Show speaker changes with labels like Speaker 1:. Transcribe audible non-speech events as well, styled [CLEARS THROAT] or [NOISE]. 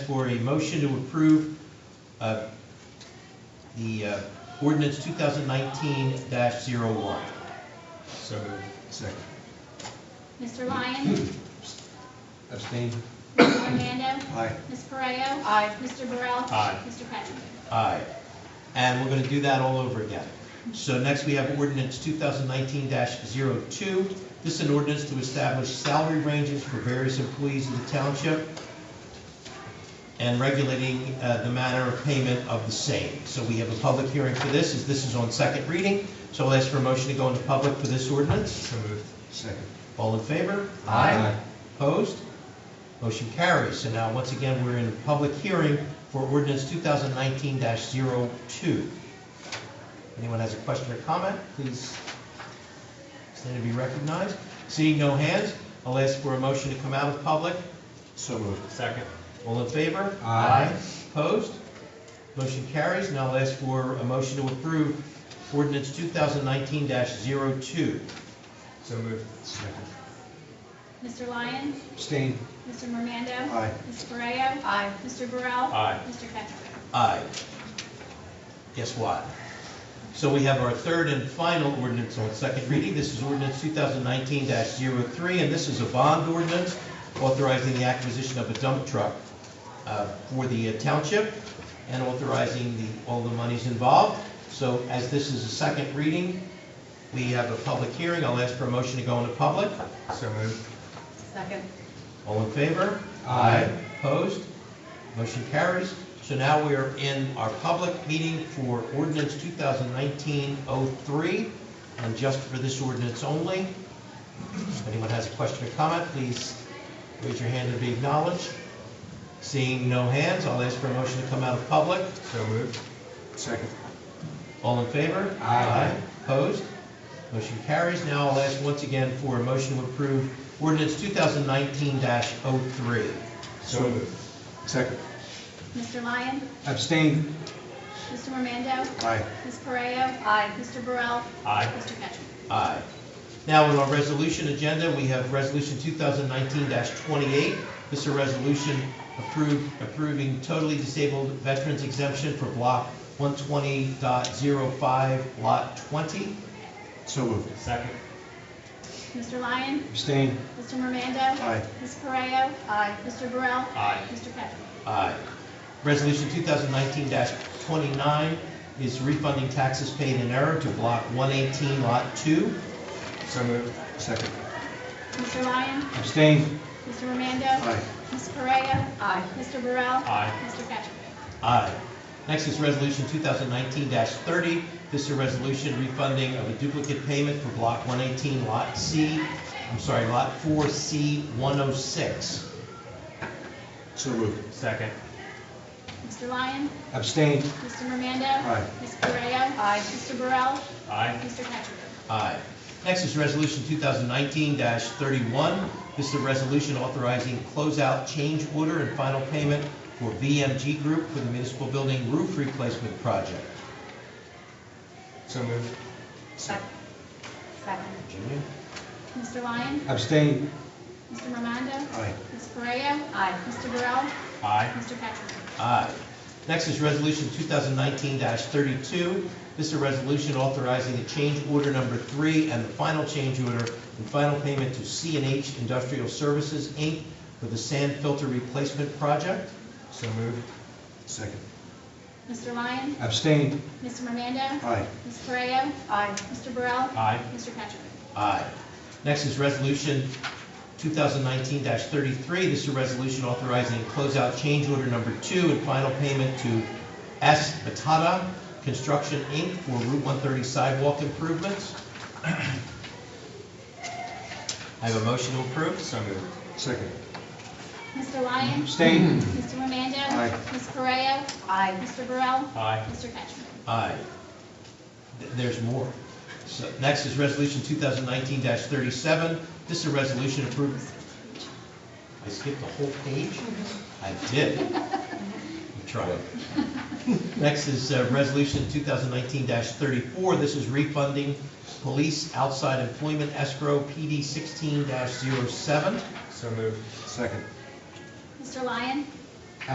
Speaker 1: for a motion to approve uh, the uh, ordinance 2019-01.
Speaker 2: So moved. Second.
Speaker 3: Mr. Lyon?
Speaker 2: Hmm. Abstain?
Speaker 3: Mr. Armando?
Speaker 2: Aye.
Speaker 3: Ms. Pareo?
Speaker 4: Aye.
Speaker 3: Mr. Burrell?
Speaker 1: Aye.
Speaker 3: Mr. Cattrick?
Speaker 1: Aye. And we're going to do that all over again. So next, we have ordinance 2019-02. This is an ordinance to establish salary ranges for various employees of the township and regulating uh, the manner of payment of the same. So we have a public hearing for this, as this is on second reading. So I'll ask for a motion to go into public for this ordinance.
Speaker 2: So moved. Second.
Speaker 1: All in favor?
Speaker 4: Aye.
Speaker 1: Opposed? Motion carries. So now, once again, we're in a public hearing for ordinance 2019-02. Anyone has a question or comment, please stand to be recognized. Seeing no hands, I'll ask for a motion to come out of public.
Speaker 2: So moved. Second.
Speaker 1: All in favor?
Speaker 2: Aye.
Speaker 1: Opposed? Motion carries. Now I'll ask for a motion to approve ordinance 2019-02.
Speaker 2: So moved. Second.
Speaker 3: Mr. Lyon?
Speaker 2: Abstain?
Speaker 3: Mr. Armando?
Speaker 2: Aye.
Speaker 3: Ms. Pareo?
Speaker 4: Aye.
Speaker 3: Mr. Burrell?
Speaker 2: Aye.
Speaker 3: Mr. Cattrick?
Speaker 1: Aye. Guess what? So we have our third and final ordinance on second reading. This is ordinance 2019-03, and this is a bond ordinance authorizing the acquisition of a dump truck uh, for the uh, township and authorizing the, all the monies involved. So as this is a second reading, we have a public hearing. I'll ask for a motion to go into public.
Speaker 2: So moved.
Speaker 4: Second.
Speaker 1: All in favor?
Speaker 2: Aye.
Speaker 1: Opposed? Motion carries. So now we are in our public meeting for ordinance 2019-03, and just for this ordinance only. If anyone has a question or comment, please raise your hand and be acknowledged. Seeing no hands, I'll ask for a motion to come out of public.
Speaker 2: So moved. Second.
Speaker 1: All in favor?
Speaker 2: Aye.
Speaker 1: Opposed? Motion carries. Now I'll ask once again for a motion to approve ordinance 2019-03.
Speaker 2: So moved. Second.
Speaker 3: Mr. Lyon?
Speaker 2: Abstain?
Speaker 3: Mr. Armando?
Speaker 2: Aye.
Speaker 3: Ms. Pareo?
Speaker 4: Aye.
Speaker 3: Mr. Burrell?
Speaker 2: Aye.
Speaker 3: Mr. Cattrick?
Speaker 1: Aye. Now, on our resolution agenda, we have Resolution 2019-28. This is a resolution approve- approving totally disabled veterans exemption for Block 120.05, Lot 20.
Speaker 2: So moved. Second.
Speaker 3: Mr. Lyon?
Speaker 2: Abstain?
Speaker 3: Mr. Armando?
Speaker 2: Aye.
Speaker 3: Ms. Pareo?
Speaker 4: Aye.
Speaker 3: Mr. Burrell?
Speaker 2: Aye.
Speaker 3: Mr. Cattrick?
Speaker 1: Aye. Resolution 2019-29 is refunding taxes paid in error to Block 118, Lot 2.
Speaker 2: So moved. Second.
Speaker 3: Mr. Lyon?
Speaker 2: Abstain?
Speaker 3: Mr. Armando?
Speaker 2: Aye.
Speaker 3: Ms. Pareo?
Speaker 4: Aye.
Speaker 3: Mr. Burrell?
Speaker 2: Aye.
Speaker 3: Mr. Cattrick?
Speaker 1: Aye. Next is Resolution 2019-30. This is a resolution refunding of a duplicate payment for Block 118, Lot C, I'm sorry, Lot 4C 106.
Speaker 2: So moved. Second.
Speaker 3: Mr. Lyon?
Speaker 2: Abstain?
Speaker 3: Mr. Romando?
Speaker 2: Aye.
Speaker 3: Ms. Correa?
Speaker 4: Aye.
Speaker 3: Mr. Burrell?
Speaker 2: Aye.
Speaker 3: Mr. Cattrick?
Speaker 1: Aye. Next is Resolution 2019-31. This is a resolution authorizing closeout change order and final payment for VMG Group for the municipal building roof replacement project.
Speaker 2: So moved.
Speaker 4: Second. Second.
Speaker 1: Virginia?
Speaker 3: Mr. Lyon?
Speaker 2: Abstain?
Speaker 3: Mr. Romando?
Speaker 2: Aye.
Speaker 3: Ms. Correa?
Speaker 4: Aye.
Speaker 3: Mr. Burrell?
Speaker 2: Aye.
Speaker 3: Mr. Cattrick?
Speaker 1: Aye. Next is Resolution 2019-32. This is a resolution authorizing the change order number three and the final change order and final payment to c and H Industrial Services, Inc. for the sand filter replacement project.
Speaker 2: So moved. Second.
Speaker 3: Mr. Lyon?
Speaker 2: Abstain?
Speaker 3: Mr. Romando?
Speaker 2: Aye.
Speaker 3: Ms. Correa?
Speaker 4: Aye.
Speaker 3: Mr. Burrell?
Speaker 2: Aye.
Speaker 3: Mr. Cattrick?
Speaker 1: Aye. Next is Resolution 2019-33. This is a resolution authorizing closeout change order number two and final payment to S. Batata Construction, Inc. for Route 130 sidewalk improvements. [CLEARS THROAT] I have a motion to approve.
Speaker 2: So moved. Second.
Speaker 3: Mr. Lyon? [CLEARS THROAT]
Speaker 2: Abstain?
Speaker 3: Mr. Romando?
Speaker 2: Aye.
Speaker 3: Ms. Correa?
Speaker 4: Aye.
Speaker 3: Mr. Burrell?
Speaker 2: Aye.
Speaker 3: Mr. Cattrick?
Speaker 1: Aye. Th- There's more. So, next is Resolution 2019-37. This is a resolution approving. I skipped a whole page? I did. I'm trying. [LAUGHS] Next is uh, Resolution 2019-34. This is refunding police outside employment escrow PD 16-07.
Speaker 2: So moved. Second.
Speaker 3: Mr. Lyon?